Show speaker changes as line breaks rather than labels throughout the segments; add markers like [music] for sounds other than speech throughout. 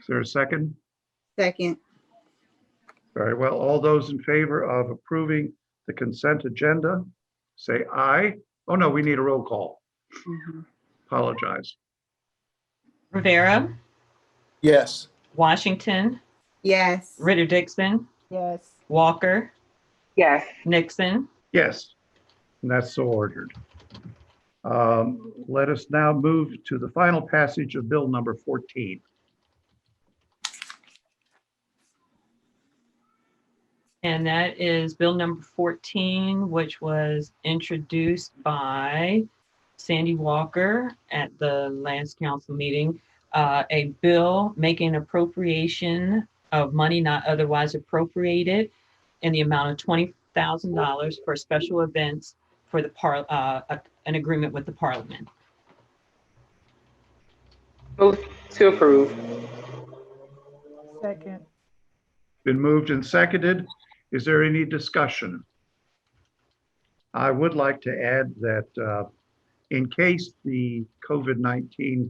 Is there a second?
Second.
Very well. All those in favor of approving the consent agenda, say aye. Oh, no, we need a roll call.
Mm-hmm.
Mhm.
Apologize.
Rivera,
Yes.
Washington,
Yes.
Ritter Dixon,
Yes.
Walker,
Yes.
Nixon.
Yes, and that's so ordered. Um, Let us now move to the final passage of Bill number 14.
And that is Bill number 14, which was introduced by Sandy Walker at the last council meeting. Uh, A bill making appropriation of money not otherwise appropriated in the amount of $20,000 for special events for the par, uh, a- an agreement with the parliament.
Move to approve. Second.
Been moved and seconded. Is there any discussion? I would like to add that uh, in case the COVID-19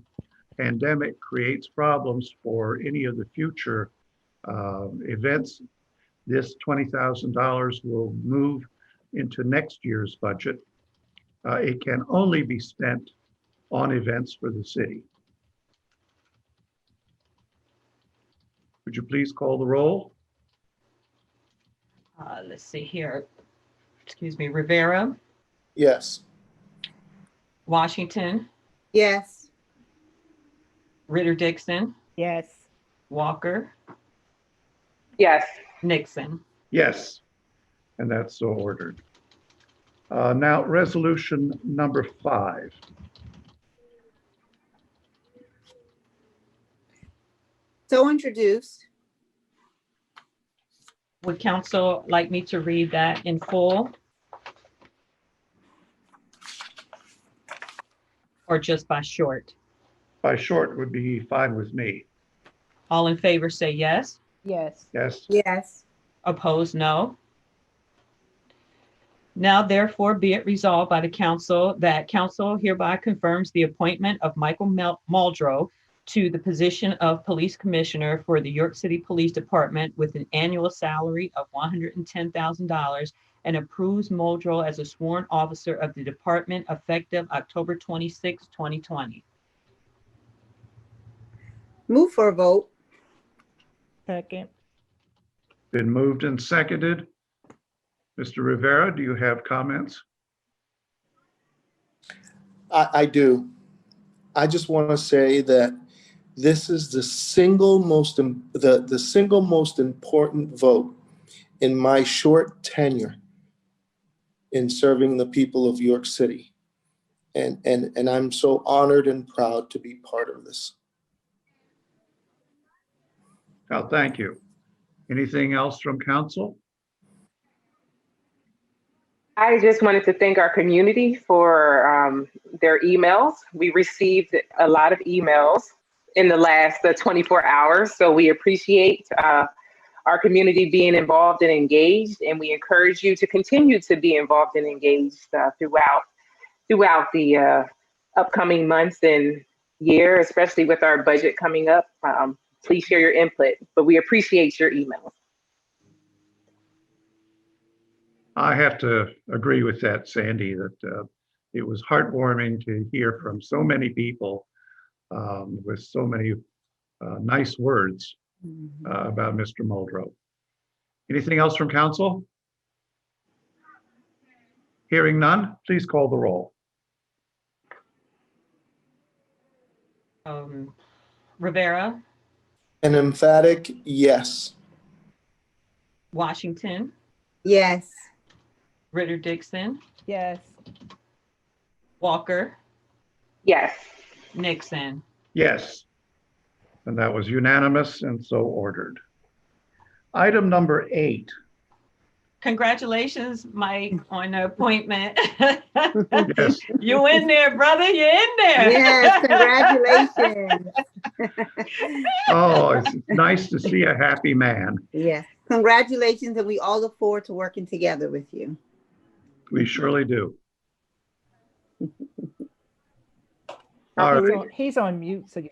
pandemic creates problems for any of the future um, events, this $20,000 will move into next year's budget. Uh, It can only be spent on events for the city. Would you please call the roll?
Uh, Let's see here. Excuse me, Rivera,
Yes.
Washington,
Yes.
Ritter Dixon,
Yes.
Walker,
Yes.
Nixon.
Yes, and that's so ordered. Uh, Now, resolution number five.
So introduced.
Would council like me to read that in full? Or just by short?
By short would be fine with me.
All in favor say yes,
Yes.
Yes,
Yes.
opposed no. Now therefore be it resolved by the council that council hereby confirms the appointment of Michael Mel- Muldrow to the position of Police Commissioner for the York City Police Department with an annual salary of $110,000 and approves Muldrow as a sworn officer of the department effective October 26, 2020.
Move for a vote.
Second.
been moved and seconded. Mr. Rivera, do you have comments?
I, I do. I just want to say that this is the single most, im- the, the single most important vote in my short tenure in serving the people of York City. And, and, and I'm so honored and proud to be part of this.
Oh, thank you. Anything else from council?
I just wanted to thank our community for um, their emails. We received a lot of emails in the last uh, 24 hours, so we appreciate uh, our community being involved and engaged, and we encourage you to continue to be involved and engaged uh, throughout throughout the uh, upcoming months and year, especially with our budget coming up. Um, please share your input, but we appreciate your emails.
I have to agree with that, Sandy, that uh, it was heartwarming to hear from so many people um, with so many uh, nice words uh, about Mr. Muldrow. Anything else from council? Hearing none, please call the roll.
Um, Rivera,
An emphatic yes.
Washington,
Yes.
Ritter Dixon,
Yes.
Walker,
Yes.
Nixon.
Yes. And that was unanimous and so ordered. Item number eight.
Congratulations,
[laughs]
Mike, on the appointment.
[laughs] Yes,
You in there, brother, you in there.
Yes.
[laughs]
Congratulations.
oh, it's nice to see a happy man.
Yes. Congratulations. And we all look forward to working together with you.
We surely do.
He's
All right.
on- He's on mute, so you